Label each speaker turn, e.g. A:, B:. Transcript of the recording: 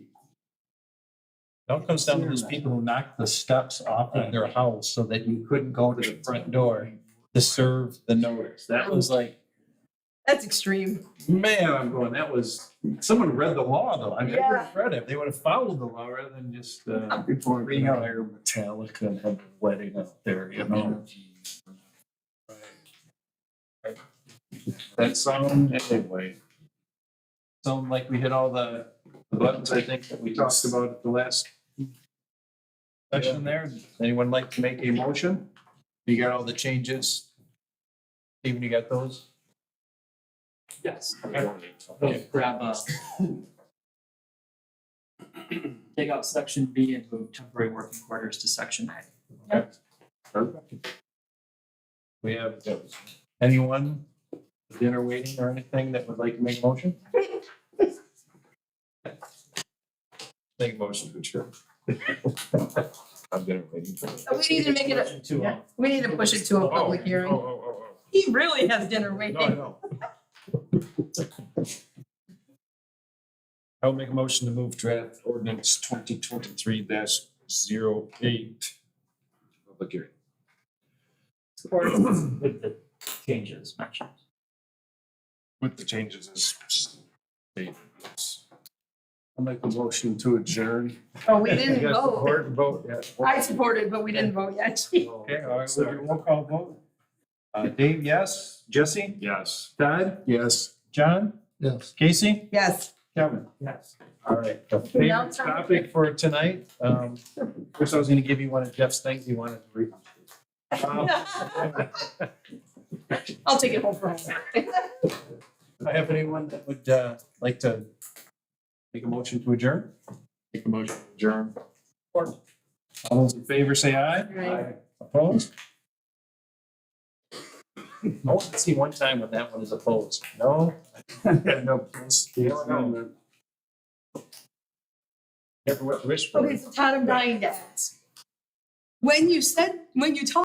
A: It all comes down to those people who knocked the steps off of their house so that you couldn't go to the front door to serve the notice. That was like,
B: That's extreme.
A: man, I'm going, that was, someone read the law though. I never
B: Yeah.
A: read it. They would have followed the law rather than just, uh,
C: Before
A: bring out Air Metallica and have a wedding out there, you know? That sound, anyway. Sound like we hit all the the buttons, I think, that we talked about at the last session there. Anyone like to make a motion? You got all the changes? Steven, you got those?
D: Yes.
A: Okay.
D: Grab uh Take out section B and move temporary working quarters to section A.
A: We have those. Anyone, at dinner waiting or anything that would like to make a motion? Make a motion to adjourn. I'm dinner waiting for.
B: Uh, We need to make it, a-
D: uh,
B: we need to push it to
A: Oh,
B: a public hearing. He really has dinner waiting.
A: know. I'll make a motion to move draft ordinance twenty twenty-three 8 Public hearing.
D: Support with the changes mentioned.
A: With the changes as stated. I'll make a motion to adjourn.
B: Oh, we didn't vote.
A: Support Oh. and vote, yes.
B: I supported, but we didn't vote yet.
A: Okay, all right, we'll do a roll call vote. Uh, Dave, yes. Jesse? Yes. Todd? Yes. John? Yes. Casey?
B: Yes.
A: Kevin?
D: Yes.
A: All right, the favorite topic for tonight, um, first I was gonna give you one of Jeff's things you wanted to read. Um,
B: I'll take it home for home.
A: Do I have anyone that would, uh, like to make a motion to adjourn? Make a motion to adjourn. All those in favor say aye.
B: Aye.
A: Opposed? Oh, let's see one time when that one is opposed. No? No. opposed. You don't know. Never what to wish for.
B: Okay, so Todd, I'm dying to ask. When you said, when you talked